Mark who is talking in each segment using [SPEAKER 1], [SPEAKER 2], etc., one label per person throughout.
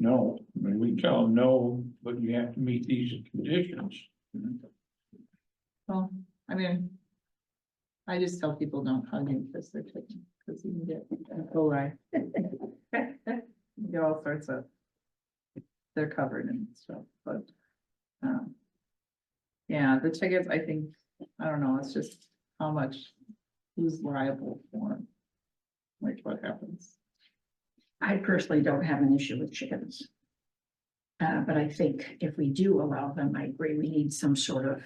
[SPEAKER 1] no, I mean, we tell them no, but you have to meet these conditions.
[SPEAKER 2] Well, I mean. I just tell people don't hug him because they're taking, because you can get coli. You get all sorts of. They're covered and stuff, but. um, Yeah, the tickets, I think, I don't know, it's just how much, who's liable for 'em, Like what happens.
[SPEAKER 3] I personally don't have an issue with chickens. Uh, but I think if we do allow them, I agree, we need some sort of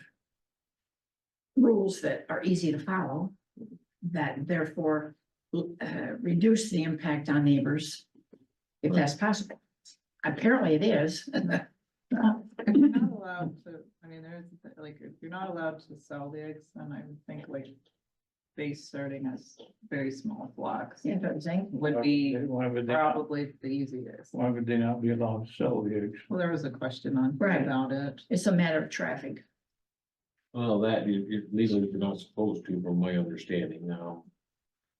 [SPEAKER 3] rules that are easy to follow, that therefore uh, reduce the impact on neighbors, if that's possible. Apparently it is.
[SPEAKER 2] If you're not allowed to, I mean, there's, like, if you're not allowed to sell the eggs, then I would think like. Base starting as very small flocks
[SPEAKER 3] You know what I'm saying?
[SPEAKER 2] would be
[SPEAKER 1] Why would they, not-
[SPEAKER 2] probably the easiest.
[SPEAKER 1] why would they not be allowed to sell the eggs?
[SPEAKER 2] Well, there was a question on
[SPEAKER 3] Right.
[SPEAKER 2] about it.
[SPEAKER 3] It's a matter of traffic.
[SPEAKER 4] Well, that, you, you, legally, you're not supposed to, from my understanding now.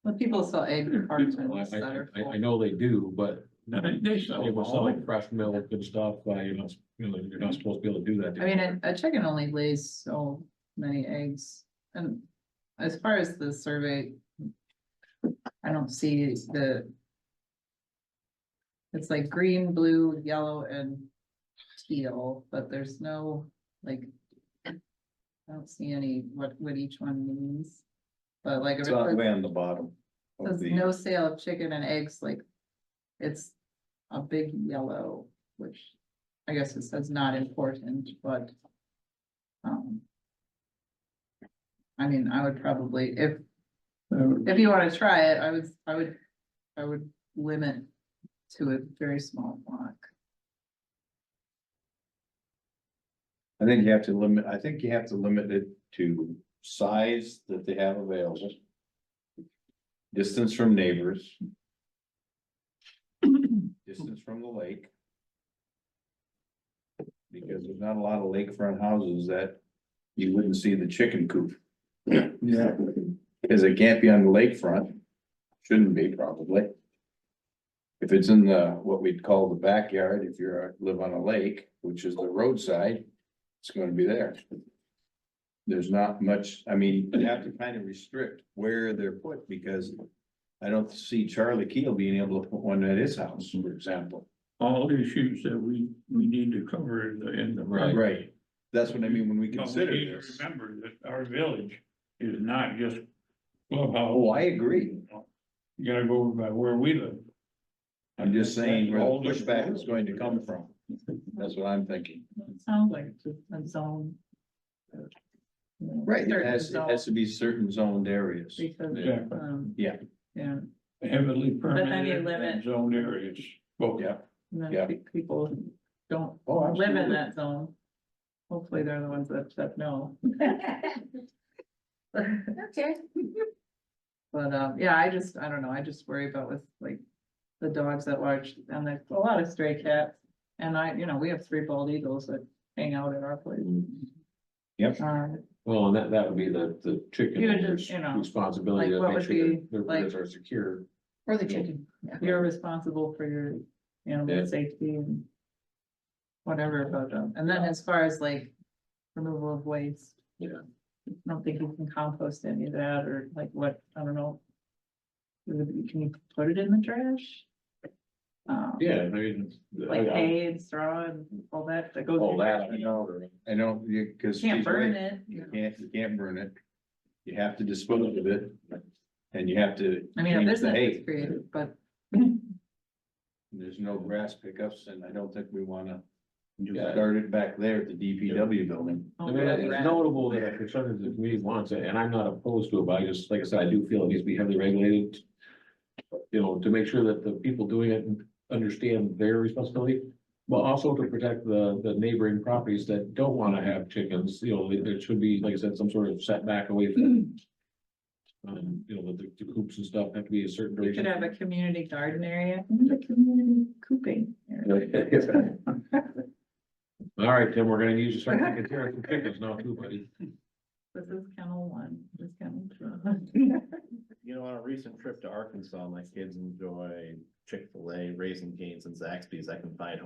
[SPEAKER 2] When people sell egg cartons
[SPEAKER 4] I,
[SPEAKER 2] that are
[SPEAKER 4] I, I- I
[SPEAKER 2] full.
[SPEAKER 4] know they do, but
[SPEAKER 1] No, They they sell
[SPEAKER 4] they
[SPEAKER 1] them
[SPEAKER 4] were
[SPEAKER 1] all.
[SPEAKER 4] selling fresh milk and stuff, uh, you're not, you know, you're not supposed to be able to do that.
[SPEAKER 2] I mean, a- a chicken only lays so many eggs and as far as the survey. I don't see the. It's like green, blue, yellow and teal, but there's no like. I don't see any what what each one means. But like. if
[SPEAKER 5] It's
[SPEAKER 2] it
[SPEAKER 5] not
[SPEAKER 2] says-
[SPEAKER 5] way on the bottom. of
[SPEAKER 2] There's
[SPEAKER 5] the-
[SPEAKER 2] no sale of chicken and eggs, like, it's a big yellow, which I guess it says not important, but. Um. I mean, I would probably, if,
[SPEAKER 1] Uh,
[SPEAKER 2] if you wanna try it, I would, I would, I would limit to a very small block.
[SPEAKER 5] I think you have to limit, I think you have to limit it to size that they have available. Distance from neighbors. Distance from the lake. Because there's not a lot of lakefront houses that you wouldn't see the chicken coop.
[SPEAKER 1] Yeah,
[SPEAKER 5] Cause it can't be on the lakefront, shouldn't be probably. If it's in the, what we'd call the backyard, if you're, live on a lake, which is the roadside, it's gonna be there. There's not much, I mean, you have to kind of restrict where they're put, because I don't see Charlie Keel being able to put one at his house, for example.
[SPEAKER 1] all issues that we, we need to cover in the, in the.
[SPEAKER 4] Right.
[SPEAKER 5] Right, that's what I mean when we
[SPEAKER 1] But we
[SPEAKER 5] consider
[SPEAKER 1] need to
[SPEAKER 5] this.
[SPEAKER 1] Remember that our village is not just clubhouse.
[SPEAKER 5] Oh, I agree,
[SPEAKER 1] You gotta go over by where we live.
[SPEAKER 5] I'm just saying where the
[SPEAKER 1] All different
[SPEAKER 5] pushback is going to come from, that's what I'm thinking.
[SPEAKER 2] It sounds like just a zone. You know,
[SPEAKER 5] Right, it
[SPEAKER 2] certain
[SPEAKER 5] has, it
[SPEAKER 2] zone,
[SPEAKER 5] has to be certain zoned areas.
[SPEAKER 2] Because,
[SPEAKER 1] Yeah.
[SPEAKER 2] um,
[SPEAKER 5] Yeah.
[SPEAKER 2] Yeah.
[SPEAKER 1] Heavily
[SPEAKER 2] then you
[SPEAKER 1] permitted and
[SPEAKER 2] limit-
[SPEAKER 1] zoned areas. Well,
[SPEAKER 5] Yeah.
[SPEAKER 2] And then
[SPEAKER 5] Yeah.
[SPEAKER 2] pe- people don't
[SPEAKER 5] Oh,
[SPEAKER 2] live in
[SPEAKER 5] absolutely.
[SPEAKER 2] that zone. Hopefully they're the ones that, that know.
[SPEAKER 3] Okay.
[SPEAKER 2] But, um, yeah, I just, I don't know, I just worry about with like the dogs at large and there's a lot of stray cats. And I, you know, we have three bald eagles that hang out at our place.
[SPEAKER 5] Yep.
[SPEAKER 2] Uh,
[SPEAKER 4] Well, and that, that would be the, the chicken
[SPEAKER 2] You would
[SPEAKER 4] owner's
[SPEAKER 2] just, you know,
[SPEAKER 4] responsibility
[SPEAKER 2] like,
[SPEAKER 4] to
[SPEAKER 2] what
[SPEAKER 4] make
[SPEAKER 2] would
[SPEAKER 4] sure
[SPEAKER 2] be,
[SPEAKER 4] that their
[SPEAKER 2] like-
[SPEAKER 4] birds are secure.
[SPEAKER 3] Or the chicken. yeah.
[SPEAKER 2] you're responsible for your
[SPEAKER 4] Yeah.
[SPEAKER 2] animal safety and whatever about them. And then as far as like removal of waste.
[SPEAKER 4] Yeah.
[SPEAKER 2] I don't think you can compost any of that or like what, I don't know. Can you put it in the trash? Um,
[SPEAKER 4] Yeah, I mean. I-
[SPEAKER 2] Like
[SPEAKER 4] I-
[SPEAKER 2] hay and straw and all that that
[SPEAKER 5] Oh,
[SPEAKER 2] goes.
[SPEAKER 4] All that,
[SPEAKER 5] I
[SPEAKER 4] I
[SPEAKER 5] know, I know, you, cause.
[SPEAKER 2] Can't
[SPEAKER 5] she's
[SPEAKER 2] burn
[SPEAKER 5] right.
[SPEAKER 2] it.
[SPEAKER 5] You can't, you can't burn it. You have to dispose of it, and you have to.
[SPEAKER 2] I mean, a
[SPEAKER 5] change the
[SPEAKER 2] business
[SPEAKER 5] hay.
[SPEAKER 2] is created, but
[SPEAKER 5] There's no grass pickups, and I don't think we wanna
[SPEAKER 4] Yeah.
[SPEAKER 5] start it back there at the DPW building.
[SPEAKER 2] Oh,
[SPEAKER 4] I mean, it's notable that a percentage of the community wants it, and I'm not opposed to it, but I just, like I said, I do feel it needs to be heavily regulated. You know, to make sure that the people doing it understand their responsibility, but also to protect the, the neighboring properties that don't wanna have chickens, you know, there- there should be, like I said, some sort of setback away from. Um, you know, the, the coops and stuff have to be a certain
[SPEAKER 2] we could
[SPEAKER 4] duration.
[SPEAKER 2] have a community garden area and a community cooping. area.
[SPEAKER 4] All right, Tim, we're gonna use your certificate here, some chickens now too, buddy.
[SPEAKER 2] This is kennel one, this is kennel two.
[SPEAKER 6] You know, on a recent trip to Arkansas, my kids enjoy Chick-fil-A, Raising Cane's and Zaxby's. I can find